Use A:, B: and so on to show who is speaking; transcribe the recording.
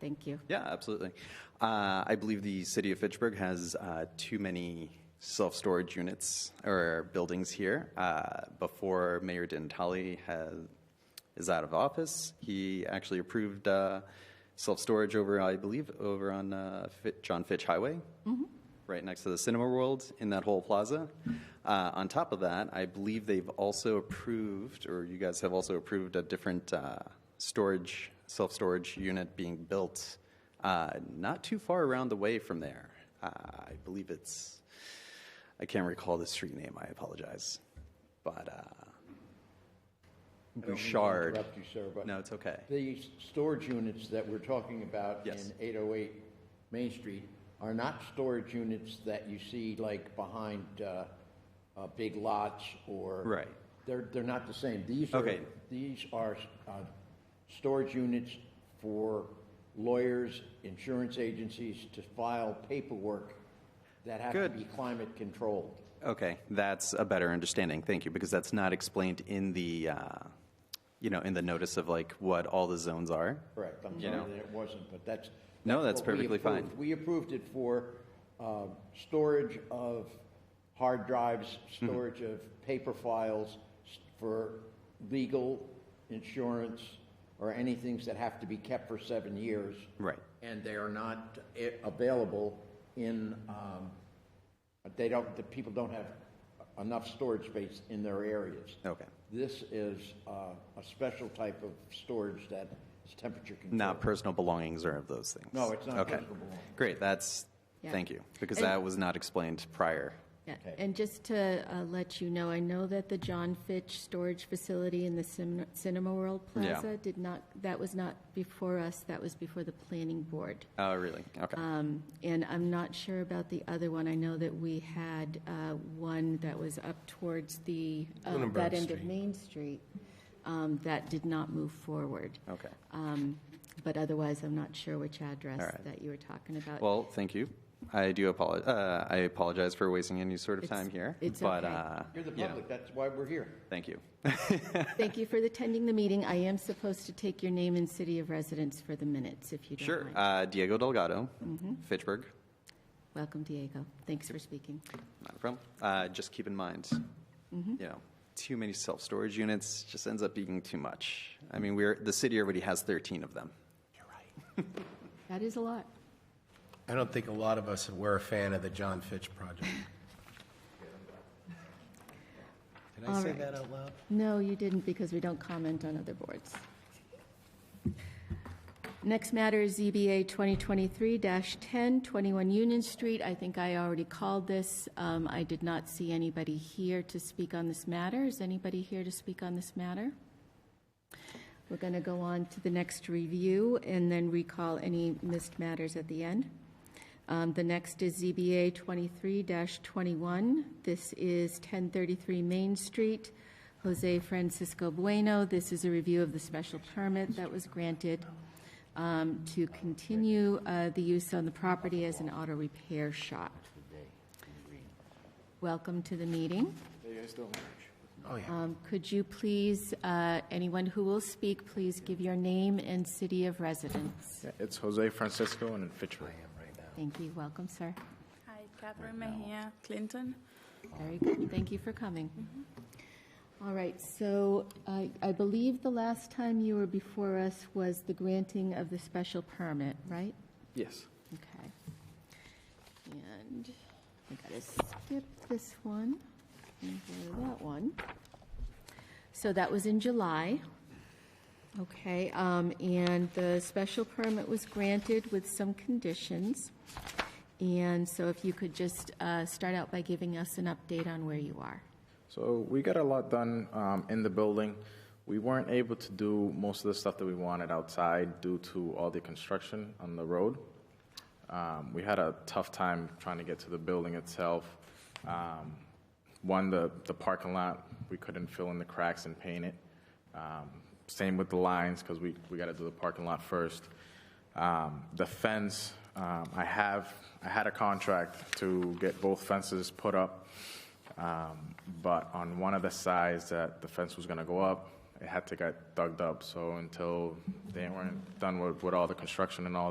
A: Thank you.
B: Yeah, absolutely. Uh, I believe the city of Fitchburg has uh, too many self-storage units or buildings here. Uh, Before Mayor Dintali has, is out of office, he actually approved uh, self-storage over, I believe, over on uh, Fit- John Fitch Highway, right next to the Cinema World in that whole plaza. Uh, On top of that, I believe they've also approved, or you guys have also approved, a different uh, storage, self-storage unit being built uh, not too far around the way from there. Uh, I believe it's, I can't recall the street name, I apologize. But uh,
C: don't mean to
B: Bouchard.
C: interrupt you, sir, but-
B: No, it's okay.
C: The storage units that we're talking about
B: Yes.
C: in 808 Main Street are not storage units that you see like behind uh, uh, big lots or...
B: Right.
C: They're, they're not the same. These are,
B: Okay.
C: these are uh, storage units for lawyers, insurance agencies to file paperwork that have to
B: Good.
C: be climate controlled.
B: Okay, that's a better understanding. Thank you, because that's not explained in the, uh, you know, in the notice of like what all the zones are.
C: Correct, I'm
B: You know.
C: sorry that it wasn't, but that's.
B: No, that's
C: what we
B: perfectly fine.
C: approved. We approved it for uh, storage of hard drives,
B: Mm-hmm.
C: storage of paper files, s- for legal, insurance, or anything that have to be kept for seven years.
B: Right.
C: And they are not eh, available in, um, they don't, the people don't have enough storage space in their areas.
B: Okay.
C: This is uh, a special type of storage that is temperature controlled.
B: Not personal belongings or of those things.
C: No, it's not
B: Okay.
C: personal belongings.
B: Great, that's,
A: Yeah.
B: thank you, because
A: And-
B: that was not explained prior.
A: Yeah,
C: Okay.
A: And just to uh, let you know, I know that the John Fitch Storage Facility in the Cin- Cinema World
B: Yeah.
A: Plaza did not, that was not before us, that was before the planning board.
B: Oh, really? Okay.
A: Um, And I'm not sure about the other one. I know that we had uh, one that was up towards the, uh, that end of Main Street um, that did not move forward.
B: Okay.
A: Um, But otherwise, I'm not sure which address
B: All right.
A: that you were talking about.
B: Well, thank you. I do apologize, uh, I apologize for wasting any sort of
A: It's-
B: time here.
A: it's
B: but,
A: okay.
B: uh,
C: You're the
B: you know,
C: public, that's why we're here.
B: Thank you.
A: Thank you for attending the meeting. I am supposed to take your name and city of residence for the Mm-hmm. minutes, if you don't
B: Sure,
A: mind.
B: uh, Diego Delgado, Fitchburg,
A: Welcome, Diego. Thanks for speaking.
B: not a problem. Uh, Just keep in mind, you know, too many self-storage units just ends up being too much. I mean, we're, the city already has 13 of them.
A: That is a lot.
D: I don't think a lot of us were a fan of the John Fitch project. Did I
A: All
D: say
A: right.
D: that out loud?
A: No, you didn't, because we don't comment on other boards. Next matter is ZBA 2023-10, 21 Union Street. I think I already called this. Um, I did not see anybody here to speak on this matter. Is anybody here to speak on this matter? We're going to go on to the next review and then recall any missed matters at the end. Um, The next is ZBA 23-21. This is 1033 Main Street, Jose Francisco Bueno. This is a review of the special permit that was granted um, to continue uh, the use on the property as an auto repair shop. Welcome to the meeting.
D: Oh, yeah.
A: Um, Could you please, uh, anyone who will speak, please give your name and city of residence?
E: Yeah, It's Jose Francisco and Fitchburg.
A: Thank you. Welcome, sir.
F: Hi, Catherine Mejia Clinton.
A: Very good. Thank you for coming. Mm-hmm. All right, so I I believe the last time you were before us was the granting of the special permit, right?
E: Yes.
A: Okay. And I gotta skip this one and go to that one. So that was in July. Okay, um, and the special permit was granted with some conditions. And so if you could just, uh, start out by giving us an update on where you are.
E: So we got a lot done um, in the building. We weren't able to do most of the stuff that we wanted outside due to all the construction on the road. Um, We had a tough time trying to get to the building itself. Um, One, the, the parking lot, we couldn't fill in the cracks and paint it. Um, Same with the lines, because we, we got to do the parking lot first. Um, The fence, um, I have, I had a contract to get both fences put up. Um, But on one of the sides that the fence was gonna go up, it had to get dug up. So until they weren't done with, with all the construction and all